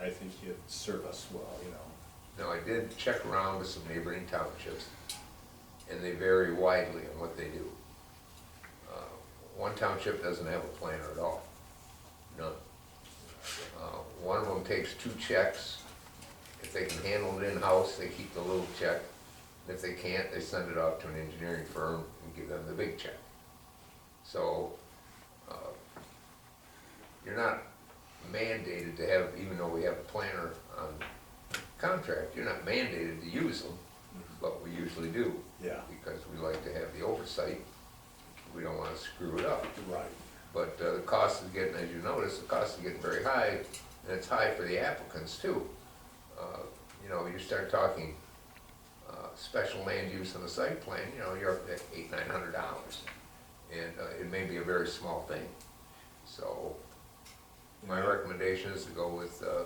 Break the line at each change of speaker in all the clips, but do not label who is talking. I think you serve us well, you know.
Now, I did check around with some neighboring townships, and they vary widely in what they do. Uh, One township doesn't have a planner at all, none. Uh, One of them takes two checks. If they can handle it in-house, they keep the little check. If they can't, they send it out to an engineering firm and give them the big check. So, uh, you're not mandated to have, even though we have a planner on contract, you're not mandated to use them, but we usually do,
Yeah,
because we like to have the oversight. We don't wanna screw it up.
right.
But uh, the cost is getting, as you notice, the cost is getting very high, and it's high for the applicants too. Uh, You know, you start talking uh, special land use on the site plan, you know, you're up at eight, nine hundred dollars. And uh, it may be a very small thing. So my recommendation is to go with uh,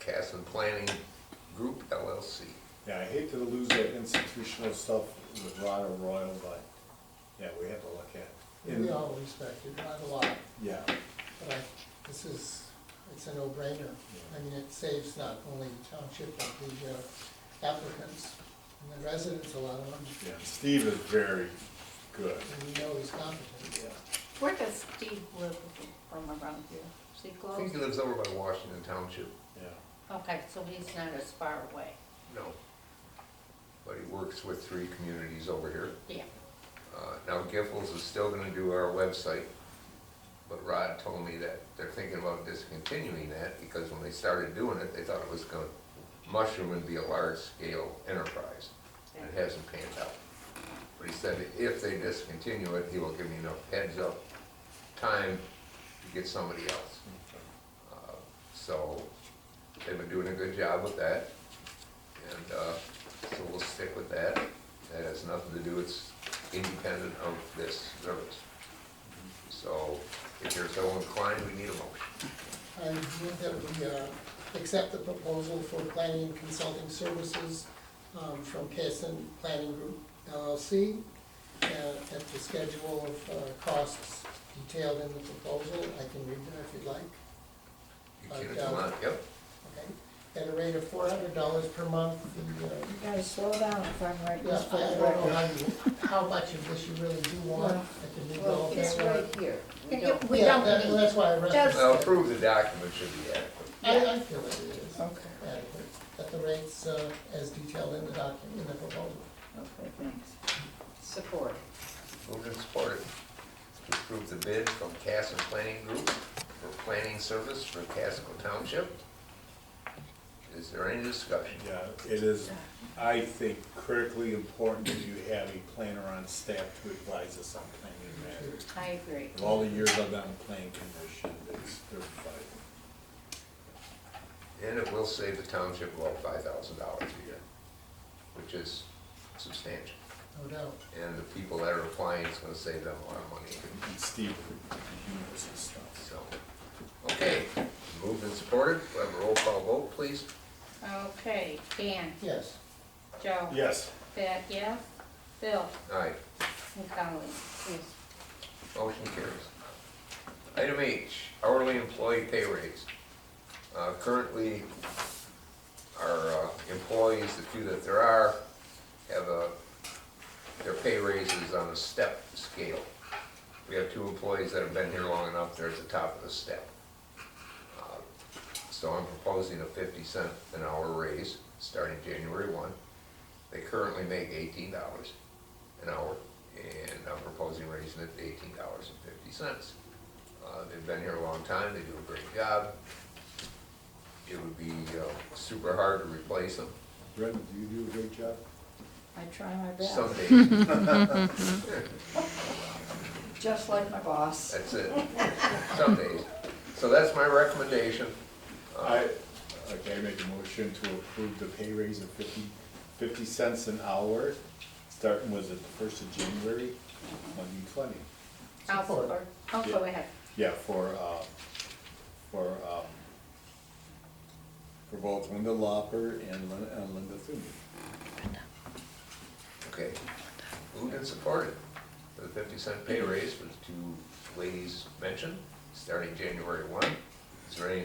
Cass and Planning Group LLC.
Yeah, I hate to lose that institutional stuff with Rod Royal, but, yeah, we have to look at. it.
We all respect it, not a lot,
Yeah,
but I, this is, it's a no-brainer. I mean, it saves not only the township, but the uh, applicants and the residents a lot of them,
yeah, Steve is very good.
and we know he's competent.
Yeah.
Where does Steve live from around here? Is he
I
close?
think he lives over by Washington Township,
Yeah,
Okay, so he's not as far away.
no. But he works with three communities over here.
Yeah,
Uh, Now, Giffords is still gonna do our website, but Rod told me that they're thinking about discontinuing that because when they started doing it, they thought it was gonna mushroom and be a large-scale enterprise. And it hasn't panned out. But he said if they discontinue it, he will give me enough heads up, time to get somebody else. Uh, So they've been doing a good job with that, and uh, so we'll stick with that. That has nothing to do, it's independent of this service. So if you're so inclined, we need a motion.
I move that we uh, accept the proposal for planning and consulting services um, from Kason Planning Group LLC uh, at the schedule of uh, costs detailed in the proposal. I can read that if you'd like.
You can if you want, yep.
Okay, at a rate of four hundred dollars per month, the, uh,
You gotta slow down if I'm writing
yeah,
this for
I I
the
don't know
record.
how you, how much of this you really do want, I can leave all
Well,
of
it's
that
right here. We
Can you-
don't-
Yeah,
We don't
that-
need-
That's why I
just-
Well,
referenced it.
approve the document should be adequate.
I, I feel it is
Okay,
adequate, at the rates, uh, as detailed in the document, in the proposal.
okay, thanks. Support.
Moved and supported to approve the bid from Cass and Planning Group for planning service for Casco Township. Is there any discussion?
Yeah, it is, I think critically important that you have a planner on staff to advise us on planning matters.
I agree.
Of all the years I've been on the planning commission, it's, they're vital.
And it will save the township about five thousand dollars a year, which is substantial.
No doubt.
And the people that are applying is gonna save them a lot of money.
And Steve, the humorous and stuff.
So, okay, moved and supported, we'll have a roll call vote, please.
Okay, Dan,
Yes,
Joe.
Yes.
Pat, yes? Bill
Aye,
and Colleen.
motion carries. Item H, hourly employee pay raise. Uh, currently, our uh, employees, the few that there are, have a, their pay raises on a step scale. We have two employees that have been here long enough, they're at the top of the step. Uh, So I'm proposing a fifty cent an hour raise, starting January one. They currently make eighteen dollars an hour, and I'm proposing raising it to eighteen dollars and fifty cents. Uh, They've been here a long time, they do a great job. It would be uh, super hard to replace them
Brendan, do you do a great job?
I try my best,
some days.
just like my boss.
That's it, some days. So that's my recommendation.
I, okay, I make a motion to approve the pay raise of fifty, fifty cents an hour, starting with the first of January, twenty twenty.
I'll
Support.
support. Oh, go ahead.
Yeah, for, uh, for, um, for both Linda Lopper and Lin- and Linda Thune.
Okay. Moved and supported for the fifty cent pay raise for the two ladies mentioned, starting January one. Is there any